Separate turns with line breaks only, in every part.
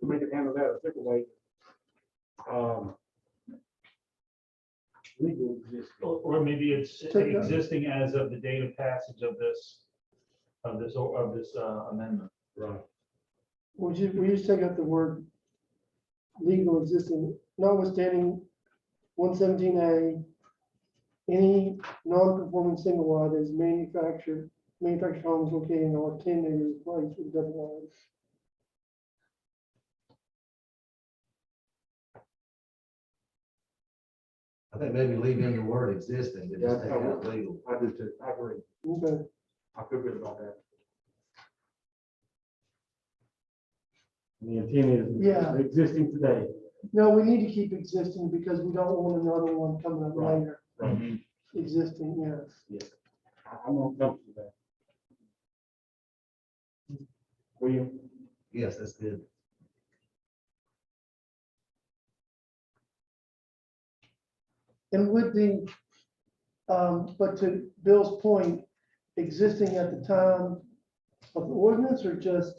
we can handle that a different way. Um, Legal exists.
Or, or maybe it's
Take that.
existing as of the date of passage of this, of this, or- of this uh, amendment.
Right.
We just, we just take out the word legal existing, notwithstanding one seventeen A, any non-conforming single wide is manufactured, manufactured homes located in or ten acres of place with double wides.
I think maybe leave in the word existing, but just take out legal.
I do too, I agree,
Okay,
I feel good about that.
The intent is.
Yeah.
Existing today.
no, we need to keep existing because we don't want another one coming up
Right.
later,
Mm-hmm.
existing, yes.
I- I'm gonna come to that. William?
Yes, that's good.
And would the, um, but to Bill's point, existing at the time of the ordinance or just?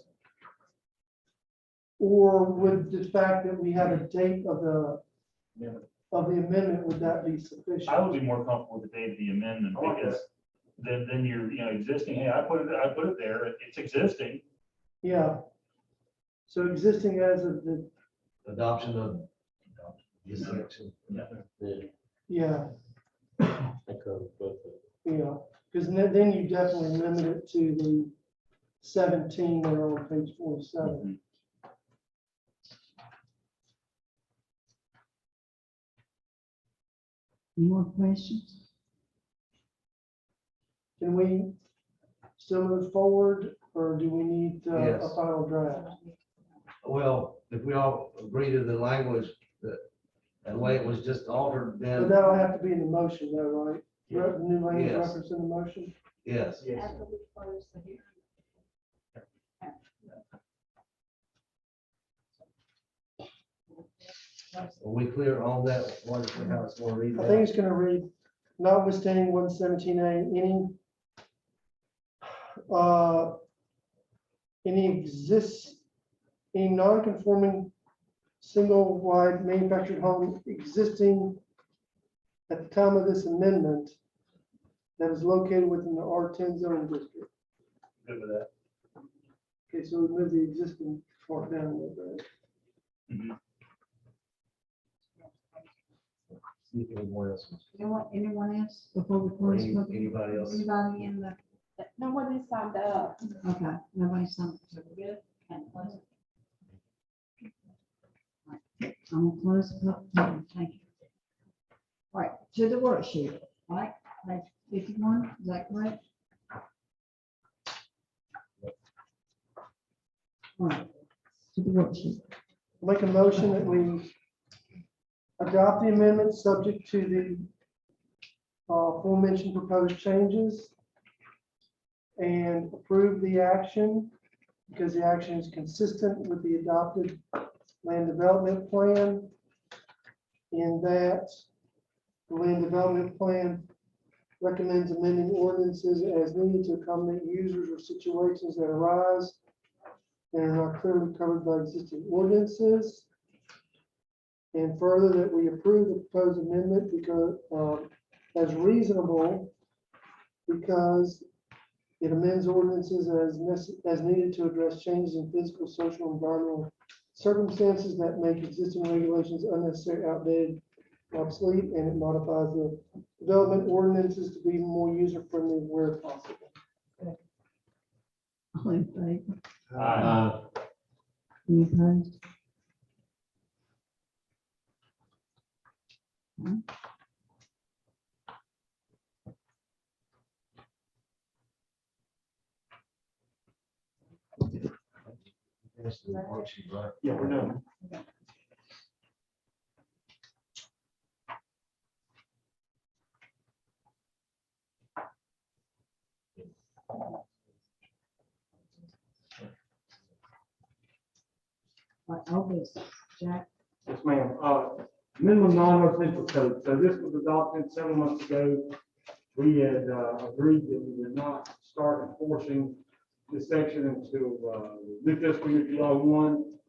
Or would the fact that we had a date of the,
Amendment.
of the amendment, would that be
I
sufficient?
would be more comfortable with the date of the amendment
I
Oh,
like
because then, then you're, you know, existing, hey, I put it, I put it there, it's existing.
Yeah. So existing as of the,
Adoption of this section.
yeah,
That covers both.
yeah, because then, then you definitely limit it to the seventeen there on page forty-seven.
Mm-hmm.
More questions?
Can we still move forward, or do we need uh, a
Yes.
final draft?
Well, if we all agree to the language, that, the way it was just altered,
But
then
that'll have to be in the motion though, right? Re- New language
Yes.
reference in the motion?
yes,
Yes.
After we close the hearing.
are we clear on that? Wonderful, how it's gonna read
I think
that?
it's gonna read notwithstanding one seventeen A, any uh, any exists, any non-conforming single wide manufactured home existing at the time of this amendment that is located within the R ten zoning district.
Good with that.
Okay, so we move the existing part down a little bit.
See if anyone else wants-
Anyone, anyone else before we close?
Any-
public-
Anybody else?
Anybody in the,
Nobody's signed up.
okay, nobody signed. up, so we're good. Can't close it. Alright, I'm gonna close the public hearing, thank you. All right, to the worksheet, all right, page fifty-one, is that correct? All right, to the worksheet.
Make a motion that we adopt the amendment subject to the uh, aforementioned proposed changes and approve the action because the action is consistent with the adopted land development plan in that the land development plan recommends amending ordinances as needed to accommodate users or situations that arise and are not clearly covered by existing ordinances. And further, that we approve the proposed amendment because, um, as reasonable because it amends ordinances as necess, as needed to address changes in physical, social, and environmental circumstances that make existing regulations unnecessary, outdated, obsolete, and it modifies the development ordinances to be more user-friendly where possible.
All in favor?
Uh,
Any opposed?
Finish the worksheet, right?
Yeah, we're done.
All right, all business, Jack,
Yes, ma'am. Uh, minimum non-residential code. So this was adopted seven months ago. We had uh, agreed that we would not start enforcing this section until uh, new fiscal year July one.